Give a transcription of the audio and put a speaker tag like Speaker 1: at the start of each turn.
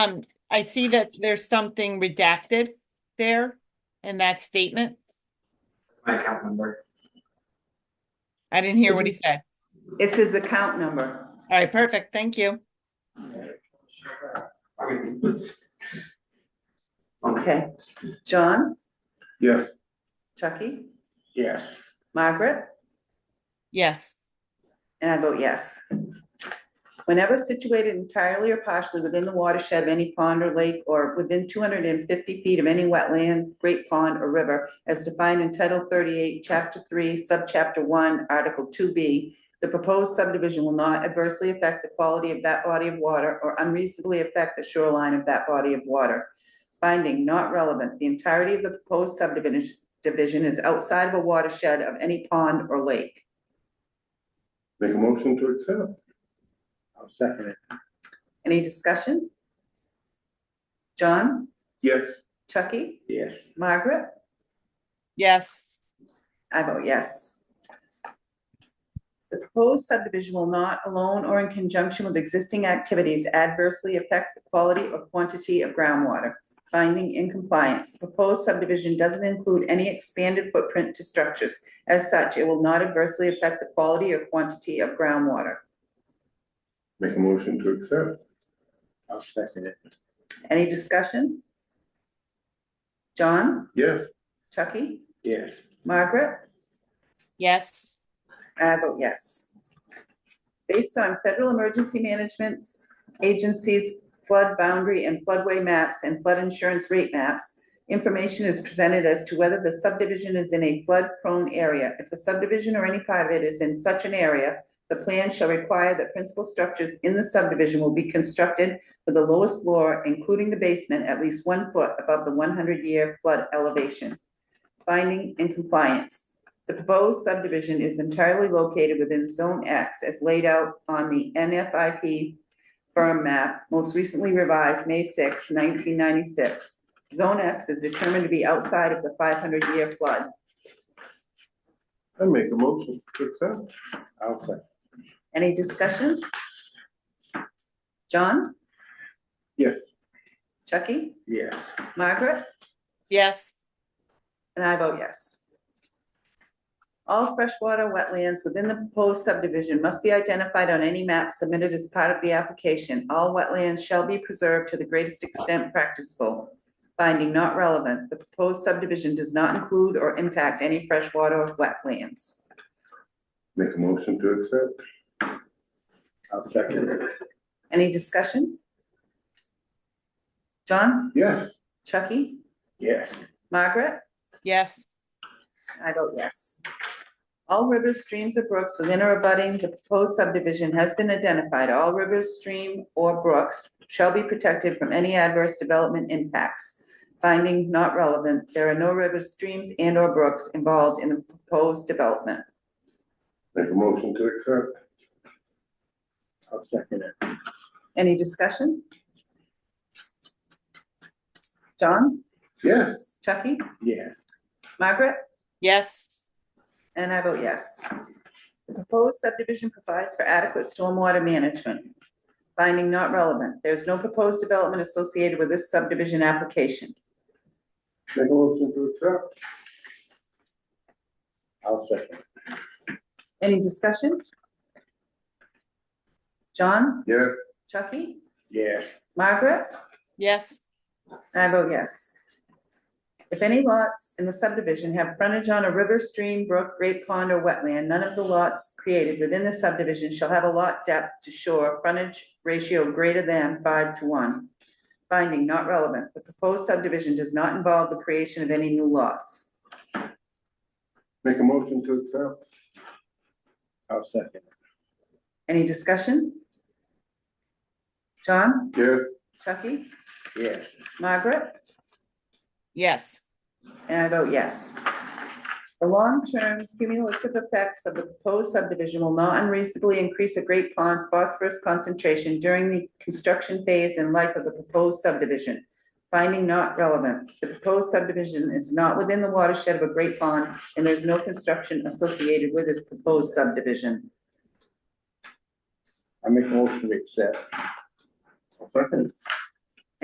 Speaker 1: Um, I see that there's something redacted there in that statement.
Speaker 2: my account number.
Speaker 1: I didn't hear what he said.
Speaker 3: It says the count number.
Speaker 1: All right, perfect. Thank you.
Speaker 3: Okay. John,
Speaker 4: Yes.
Speaker 3: Chucky,
Speaker 4: Yes.
Speaker 3: Margaret,
Speaker 1: Yes,
Speaker 3: and I vote yes. Whenever situated entirely or partially within the watershed of any pond or lake or within two hundred and fifty feet of any wetland, great pond or river as defined in Title thirty-eight, Chapter three, Subchapter one, Article two B, the proposed subdivision will not adversely affect the quality of that body of water or unreasonably affect the shoreline of that body of water. Finding not relevant, the entirety of the proposed subdivision division is outside of a watershed of any pond or lake.
Speaker 4: Make a motion to accept. I'll second it.
Speaker 3: Any discussion? John,
Speaker 4: Yes.
Speaker 3: Chucky,
Speaker 4: Yes.
Speaker 3: Margaret?
Speaker 1: yes,
Speaker 3: I vote yes. The proposed subdivision will not alone or in conjunction with existing activities adversely affect the quality or quantity of groundwater. Finding in compliance, proposed subdivision doesn't include any expanded footprint to structures. As such, it will not adversely affect the quality or quantity of groundwater.
Speaker 4: Make a motion to accept. I'll second it.
Speaker 3: Any discussion? John,
Speaker 4: Yes.
Speaker 3: Chucky,
Speaker 4: Yes.
Speaker 3: Margaret?
Speaker 1: yes,
Speaker 3: I vote yes. Based on Federal Emergency Management Agency's flood boundary and floodway maps and flood insurance rate maps, information is presented as to whether the subdivision is in a flood-prone area. If the subdivision or any part of it is in such an area, the plan shall require that principal structures in the subdivision will be constructed with the lowest floor, including the basement, at least one foot above the 100-year flood elevation. Finding and compliance. The proposed subdivision is entirely located within Zone X as laid out on the NFIP firm map, most recently revised May 6, nineteen ninety-six. Zone X is determined to be outside of the five hundred year flood.
Speaker 4: I make a motion to accept. I'll second.
Speaker 3: Any discussion? John,
Speaker 4: Yes.
Speaker 3: Chucky,
Speaker 4: Yes.
Speaker 3: Margaret?
Speaker 1: yes,
Speaker 3: And I vote yes. All freshwater wetlands within the proposed subdivision must be identified on any map submitted as part of the application. All wetlands shall be preserved to the greatest extent practicable. Finding not relevant, the proposed subdivision does not include or impact any freshwater or wetlands.
Speaker 4: Make a motion to accept. I'll second it.
Speaker 3: Any discussion? John,
Speaker 4: Yes.
Speaker 3: Chucky,
Speaker 4: Yes.
Speaker 3: Margaret?
Speaker 1: yes,
Speaker 3: I vote yes. All rivers, streams, or brooks within or abutting the proposed subdivision has been identified. All rivers, stream, or brooks shall be protected from any adverse development impacts. Finding not relevant, there are no rivers, streams, and/or brooks involved in the proposed development.
Speaker 4: Make a motion to accept. I'll second it.
Speaker 3: Any discussion? John,
Speaker 4: Yes.
Speaker 3: Chucky,
Speaker 4: Yes.
Speaker 3: Margaret?
Speaker 1: yes,
Speaker 3: And I vote yes. The proposed subdivision provides for adequate stormwater management. Finding not relevant. There's no proposed development associated with this subdivision application.
Speaker 4: Make a motion to accept. I'll second.
Speaker 3: Any discussion? John,
Speaker 4: Yes.
Speaker 3: Chucky,
Speaker 4: Yes.
Speaker 3: Margaret?
Speaker 1: yes,
Speaker 3: I vote yes. If any lots in the subdivision have frontage on a river, stream, brook, great pond, or wetland, none of the lots created within the subdivision shall have a lot depth to shore frontage ratio greater than five to one. Finding not relevant, the proposed subdivision does not involve the creation of any new lots.
Speaker 4: Make a motion to accept. I'll second.
Speaker 3: Any discussion? John,
Speaker 4: Yes.
Speaker 3: Chucky,
Speaker 4: Yes.
Speaker 3: Margaret?
Speaker 1: yes,
Speaker 3: And I vote yes. The long-term cumulative effects of the proposed subdivision will not unreasonably increase a Great Pond's phosphorus concentration during the construction phase and life of the proposed subdivision. Finding not relevant, the proposed subdivision is not within the watershed of a Great Pond, and there's no construction associated with this proposed subdivision.
Speaker 4: I make a motion to accept. I'll second.